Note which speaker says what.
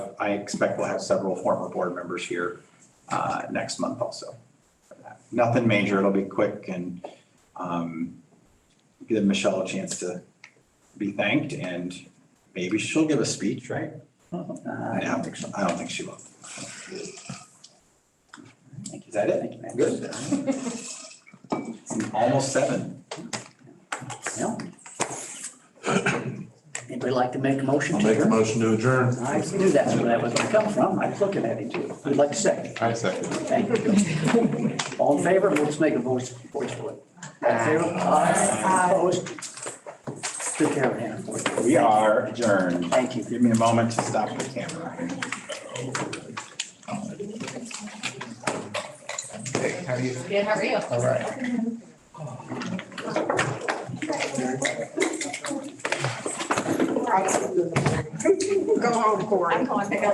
Speaker 1: have, I expect we'll have several former board members here uh, next month also. for that. Nothing major, it'll be quick and um, give Michelle a chance to be thanked and maybe she'll give a speech, right?
Speaker 2: Uh,
Speaker 1: I don't think so, I don't think she will. Is that it? Good. It's Almost seven.
Speaker 2: No. Anybody like to make a motion?
Speaker 3: I'll
Speaker 2: to
Speaker 3: make a
Speaker 2: adjourn?
Speaker 3: motion to adjourn.
Speaker 2: I knew that's where that was gonna come from. I was looking at it too. I'd like to say,
Speaker 3: I second.
Speaker 2: thank you. All in favor, let's make a voice, voice for it. All in favor? Aye. Opposed? Took care of Hannah for you.
Speaker 1: We are adjourned.
Speaker 2: Thank you.
Speaker 1: Give me a moment to stop the camera.
Speaker 4: Good, how are you?
Speaker 1: All right.
Speaker 5: Go home, Corey.
Speaker 4: I'm going to pick up